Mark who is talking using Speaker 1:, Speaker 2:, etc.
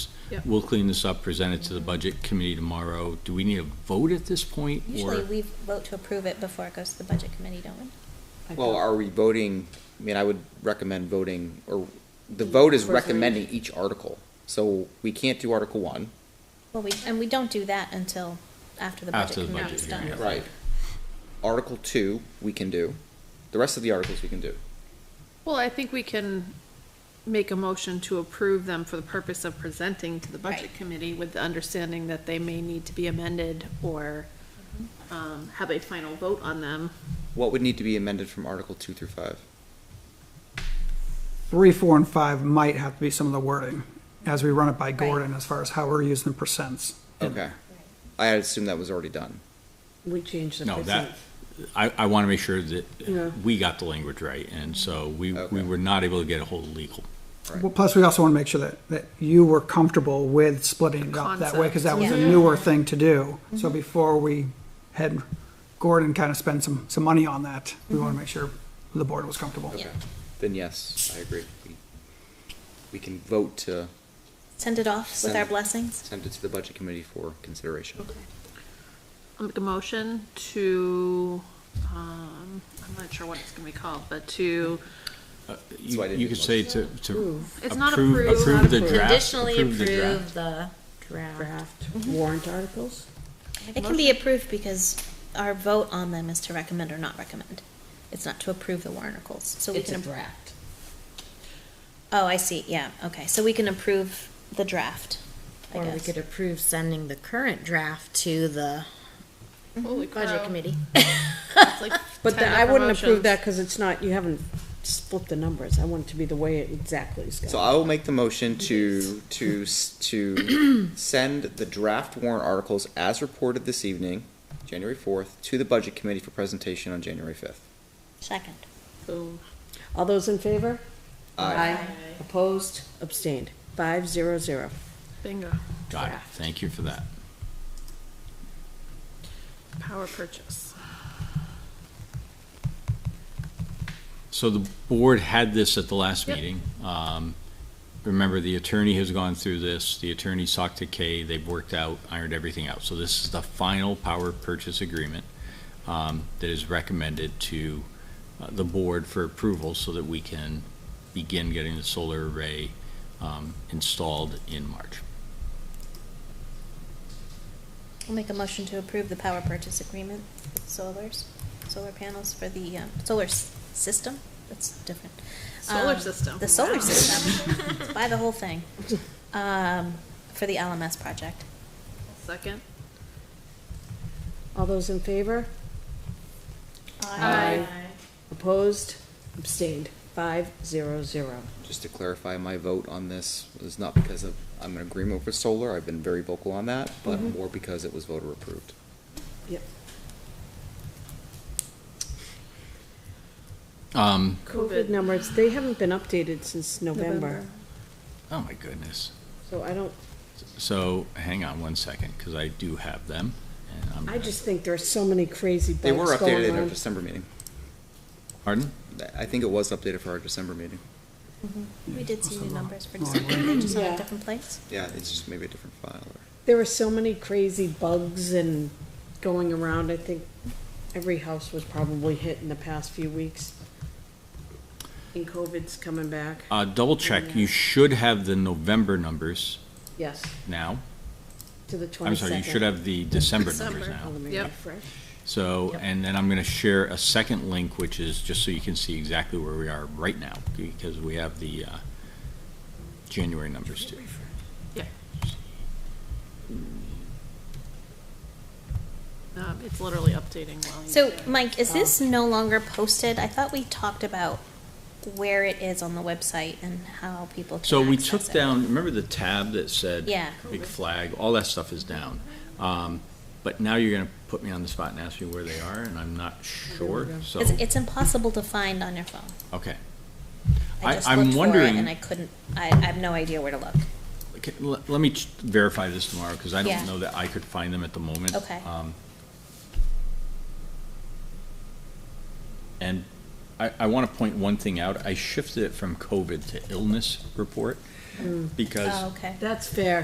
Speaker 1: Yep.
Speaker 2: We'll clean this up, present it to the budget committee tomorrow. Do we need a vote at this point?
Speaker 3: Usually
Speaker 2: or
Speaker 3: we vote to approve it before it goes to the budget committee, don't we?
Speaker 1: I
Speaker 4: Well,
Speaker 1: thought-
Speaker 4: are we voting, I mean, I would recommend voting, or, the vote is
Speaker 1: First reading?
Speaker 4: recommending each article. So we can't do Article One.
Speaker 3: Well, we, and we don't do that until after the budget
Speaker 2: After the
Speaker 3: committee
Speaker 2: budget
Speaker 3: is
Speaker 2: hearing,
Speaker 3: done.
Speaker 2: yeah. Right.
Speaker 4: Article Two, we can do. The rest of the articles we can do.
Speaker 1: Well, I think we can make a motion to approve them for the purpose of presenting to the budget
Speaker 3: Right.
Speaker 1: committee with the understanding that they may need to be amended or um, have a final vote on them.
Speaker 4: What would need to be amended from Article Two through Five?
Speaker 5: Three, four, and five might have to be some of the wording as we run it by Gordon as far as how we're using the percents.
Speaker 4: Okay. I had assumed that was already done.
Speaker 6: We changed the
Speaker 2: No,
Speaker 6: percent.
Speaker 2: that, I, I want to make sure that
Speaker 6: Yeah.
Speaker 2: we got the language right, and so we, we
Speaker 4: Okay.
Speaker 2: were not able to get a hold of legal.
Speaker 4: Right.
Speaker 5: Well, plus we also want to make sure that, that you were comfortable with splitting it up that way because that was a
Speaker 3: Concept. Mm-hmm.
Speaker 5: newer thing to do. So before we had Gordon kind of spend some, some money on that, we
Speaker 3: Mm-hmm.
Speaker 5: want to make sure the board was comfortable.
Speaker 3: Yeah.
Speaker 4: Then yes, I agree. We- We can vote to
Speaker 3: Send it off with
Speaker 4: Send
Speaker 3: our
Speaker 4: it.
Speaker 3: blessings.
Speaker 4: send it to the Budget Committee for consideration.
Speaker 1: I'll make a motion to, um, I'm not sure what it's gonna be called, but to,
Speaker 4: why I
Speaker 2: Uh, You
Speaker 4: didn't
Speaker 2: you
Speaker 4: do
Speaker 2: could say to, to
Speaker 1: It's not
Speaker 2: approve,
Speaker 1: approved.
Speaker 2: approve the
Speaker 6: Not
Speaker 2: draft, approve the draft.
Speaker 7: the draft.
Speaker 6: Draft warrant articles?
Speaker 3: It can be approved because our vote on them is to recommend or not recommend. It's not to approve the warrant articles, so we
Speaker 6: It's a
Speaker 3: can. appro-
Speaker 6: draft.
Speaker 3: Oh, I see, yeah, okay, so we can approve the draft, I
Speaker 7: Or we
Speaker 3: guess.
Speaker 7: could approve sending the current draft to the
Speaker 1: holy
Speaker 7: budget
Speaker 1: cow.
Speaker 7: committee.
Speaker 1: It's like
Speaker 6: But
Speaker 1: 10
Speaker 6: then I wouldn't
Speaker 1: promotions.
Speaker 6: approve that because it's not, you haven't split the numbers. I want it to be the way it exactly is
Speaker 4: So
Speaker 6: going.
Speaker 4: I will make the motion to, to, s- to send the draft warrant articles as reported this evening, January fourth, to the Budget Committee for presentation on January fifth.
Speaker 3: Second.
Speaker 1: Boom.
Speaker 6: All those in favor?
Speaker 4: Aye.
Speaker 6: Opposed? Abstained? Five zero zero.
Speaker 1: Bingo.
Speaker 2: Got it,
Speaker 1: Draft.
Speaker 2: thank you for that.
Speaker 1: Power purchase.
Speaker 2: So the board had this at the last
Speaker 1: Yep.
Speaker 2: meeting. Um, Remember, the attorney has gone through this, the attorneys talked to Kay, they've worked out, ironed everything out. So this is the final power purchase agreement um, that is recommended to uh, the board for approval so that we can begin getting the solar array um, installed in March.
Speaker 3: We'll make a motion to approve the power purchase agreement with solars, solar panels for the, um, solar s- system, that's different.
Speaker 1: Solar
Speaker 3: Um,
Speaker 1: system.
Speaker 3: The solar
Speaker 1: Wow.
Speaker 3: system, buy the whole thing, um, for the LMS project.
Speaker 1: Second.
Speaker 6: All those in favor?
Speaker 1: Aye.
Speaker 6: Opposed? Abstained? Five zero zero.
Speaker 4: Just to clarify, my vote on this was not because of, I'm in agreement with solar, I've been very vocal on that, but
Speaker 6: Mm-hmm.
Speaker 4: more because it was voter approved.
Speaker 6: Yep.
Speaker 2: Um,
Speaker 1: COVID.
Speaker 6: COVID numbers, they haven't been updated since November,
Speaker 2: Oh, my goodness.
Speaker 6: so I don't,
Speaker 2: So hang on one second, because I do have them. and I'm
Speaker 6: I
Speaker 2: gonna-
Speaker 6: just think there are so many crazy
Speaker 4: They were
Speaker 6: bugs
Speaker 4: updated
Speaker 6: going
Speaker 4: at our
Speaker 6: on.
Speaker 4: December meeting.
Speaker 2: Pardon?
Speaker 4: I think it was updated for our December meeting.
Speaker 3: We did see new numbers for December, they're just on a
Speaker 6: Yeah.
Speaker 3: different place.
Speaker 4: Yeah, it's just maybe a different file or.
Speaker 6: There were so many crazy bugs and going around, I think every house was probably hit in the past few weeks. And COVID's coming back,
Speaker 2: Uh, double check, you should have the November numbers
Speaker 6: yes,
Speaker 2: now.
Speaker 6: to the twenty-second.
Speaker 2: I'm sorry, you should have the December numbers
Speaker 1: December.
Speaker 3: Oh.
Speaker 2: now.
Speaker 1: Yep.
Speaker 2: So, and then I'm gonna share a second link, which is just so you can see exactly where we are right now, because we have the, uh, January numbers too.
Speaker 1: Um, it's literally updating while you.
Speaker 3: So, Mike, is this no longer posted? I thought we talked about where it is on the website and how people can
Speaker 2: So we
Speaker 3: access
Speaker 2: took
Speaker 3: it.
Speaker 2: down, remember the tab that said?
Speaker 3: Yeah.
Speaker 2: Big flag, all that stuff is down. Um, but now you're gonna put me on the spot and ask me where they are, and I'm not sure, so,
Speaker 3: It's, it's impossible to find on your phone.
Speaker 2: okay.
Speaker 3: I
Speaker 2: I-
Speaker 3: just
Speaker 2: I'm
Speaker 3: looked for it
Speaker 2: wondering-
Speaker 3: and I couldn't, I, I have no idea where to look.
Speaker 2: Okay, le- Let me ch- verify this tomorrow, because I
Speaker 3: Yeah.
Speaker 2: don't know that I could find them at the moment.
Speaker 3: Okay.
Speaker 2: Um, And I, I want to point one thing out. I shifted it from COVID to illness report, because
Speaker 3: Oh, okay.
Speaker 6: That's fair.